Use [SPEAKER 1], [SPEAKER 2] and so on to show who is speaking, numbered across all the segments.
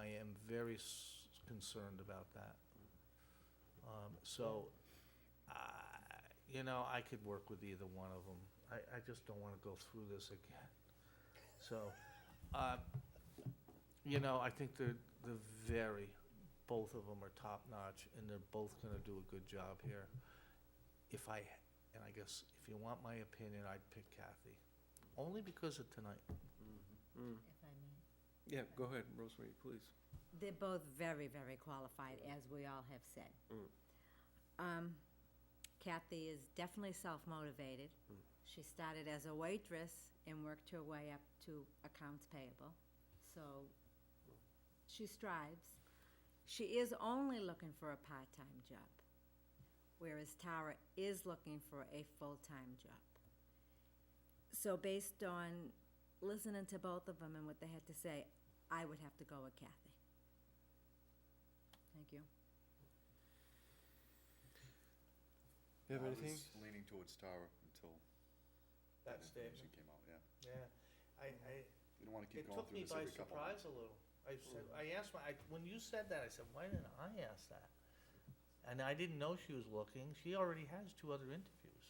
[SPEAKER 1] I am very s- concerned about that. Um, So, I- you know, I could work with either one of them. I, I just don't want to go through this again. So, uh, you know, I think they're, they're very, both of them are top-notch, and they're both going to do a good job here. If I, and I guess, if you want my opinion, I'd pick Kathy, only because of tonight.
[SPEAKER 2] Mm.
[SPEAKER 3] if I may.
[SPEAKER 2] Yeah, go ahead, Rosemary, please.
[SPEAKER 3] They're both very, very qualified, as we all have said.
[SPEAKER 2] Mm.
[SPEAKER 3] Um, Kathy is definitely self-motivated. She started as a waitress and worked her way up to accounts payable, so she strives. She is only looking for a part-time job, whereas Tara is looking for a full-time job. So based on listening to both of them and what they had to say, I would have to go with Kathy. Thank you.
[SPEAKER 2] You have
[SPEAKER 4] I
[SPEAKER 2] anything?
[SPEAKER 4] was leaning towards Tara until that information came out, yeah.
[SPEAKER 1] yeah. I, I,
[SPEAKER 4] You don't want to keep
[SPEAKER 1] it
[SPEAKER 4] going
[SPEAKER 1] took me
[SPEAKER 4] through this
[SPEAKER 1] by
[SPEAKER 4] every couple of
[SPEAKER 1] surprise a little. I said, I asked my, I- when you said that, I said, why didn't I ask that? And I didn't know she was looking. She already has two other interviews.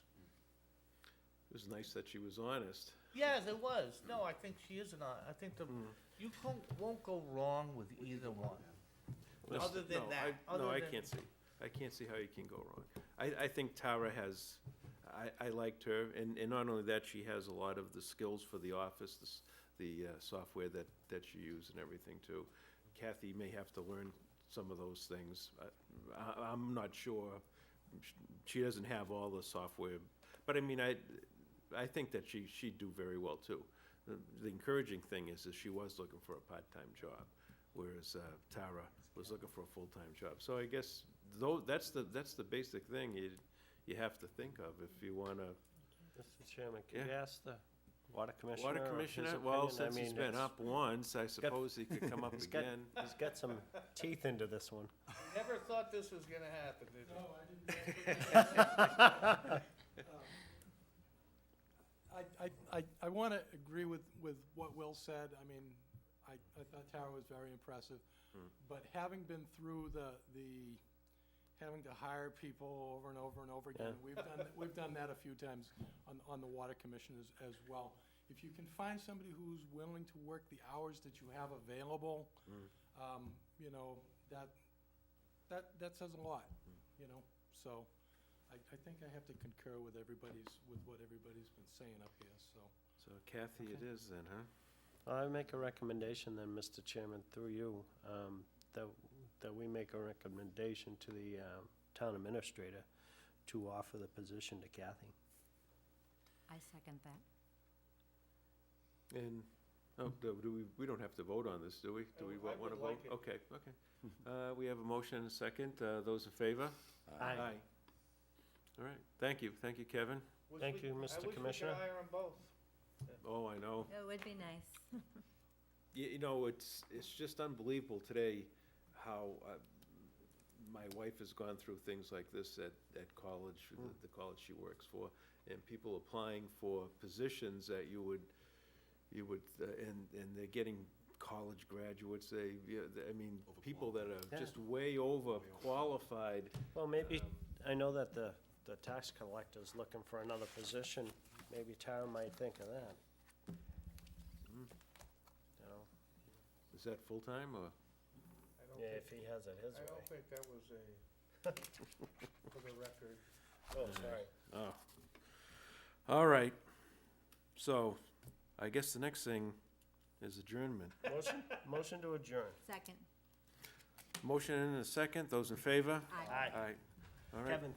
[SPEAKER 2] It was nice that she was honest.
[SPEAKER 1] Yes, it was. No, I think she is not. I think the,
[SPEAKER 4] Mm-hmm.
[SPEAKER 1] you can't, won't go wrong with either one. Other than
[SPEAKER 2] No, I-
[SPEAKER 1] that, other
[SPEAKER 2] No, I
[SPEAKER 1] than-
[SPEAKER 2] can't see, I can't see how you can go wrong. I, I think Tara has, I, I liked her, and, and not only that, she has a lot of the skills for the office, the, s- the uh, software that, that she used and everything too. Kathy may have to learn some of those things. I- I, I'm not sure. She- She doesn't have all the software, but I mean, I, I think that she, she'd do very well too. The the encouraging thing is that she was looking for a part-time job, whereas uh, Tara was looking for a full-time job. So I guess though, that's the, that's the basic thing you, you have to think of if you want to.
[SPEAKER 5] Mr. Chairman,
[SPEAKER 2] Yeah.
[SPEAKER 5] could you ask the water commissioner?
[SPEAKER 2] Water
[SPEAKER 5] of his
[SPEAKER 2] commissioner, well,
[SPEAKER 5] opinion? I
[SPEAKER 2] since he's
[SPEAKER 5] mean,
[SPEAKER 2] been
[SPEAKER 5] it's-
[SPEAKER 2] up once, I suppose he could come up
[SPEAKER 5] he's got-
[SPEAKER 2] again.
[SPEAKER 5] He's got some teeth into this one.
[SPEAKER 1] Never thought this was gonna happen, did you?
[SPEAKER 6] No, I didn't. I, I, I, I want to agree with, with what Will said. I mean, I, I thought Tara was very impressive. But having been through the, the, having to hire people over and over and over again,
[SPEAKER 5] Yeah.
[SPEAKER 6] we've done, we've done that a few times on, on the Water Commission as, as well. If you can find somebody who's willing to work the hours that you have available, um, you know, that, that, that says a lot, you know? So I, I think I have to concur with everybody's, with what everybody's been saying up here, so.
[SPEAKER 2] So Kathy it is then, huh?
[SPEAKER 5] I make a recommendation then, Mr. Chairman, through you, um, that, that we make a recommendation to the um, town administrator to offer the position to Kathy.
[SPEAKER 3] I second that.
[SPEAKER 2] And, oh, do do we, we don't have to vote on this, do we? Do we
[SPEAKER 1] I
[SPEAKER 2] want to
[SPEAKER 1] would
[SPEAKER 2] vote?
[SPEAKER 1] like it.
[SPEAKER 2] Okay, okay. Uh, We have a motion and a second. Uh, Those in favor? Aye. All right, thank you, thank you, Kevin.
[SPEAKER 1] Wish
[SPEAKER 5] Thank
[SPEAKER 1] we-
[SPEAKER 5] you, Mr. Commissioner.
[SPEAKER 1] I wish we could hire 'em both.
[SPEAKER 2] Oh, I know.
[SPEAKER 3] It would be nice.
[SPEAKER 2] You, you know, it's, it's just unbelievable today how uh, my wife has gone through things like this at, at college, the- the college she works for, and people applying for positions that you would, you would, uh, and, and they're getting college graduates, they, yeah, they- I mean, people that are just way over qualified.
[SPEAKER 5] Well, maybe, I know that the, the tax collector's looking for another position. Maybe Tara might think of that. You know,
[SPEAKER 2] Is that full-time or?
[SPEAKER 1] I don't
[SPEAKER 5] yeah,
[SPEAKER 1] think-
[SPEAKER 5] if he has it his
[SPEAKER 1] I
[SPEAKER 5] way.
[SPEAKER 1] don't think that was a, for the record.
[SPEAKER 5] Oh, sorry.
[SPEAKER 2] Oh. All right. So I guess the next thing is adjournment.
[SPEAKER 5] Motion, motion to adjourn.
[SPEAKER 3] Second.
[SPEAKER 2] Motion and a second. Those in favor?
[SPEAKER 3] Aye.
[SPEAKER 2] All right.
[SPEAKER 5] Kevin,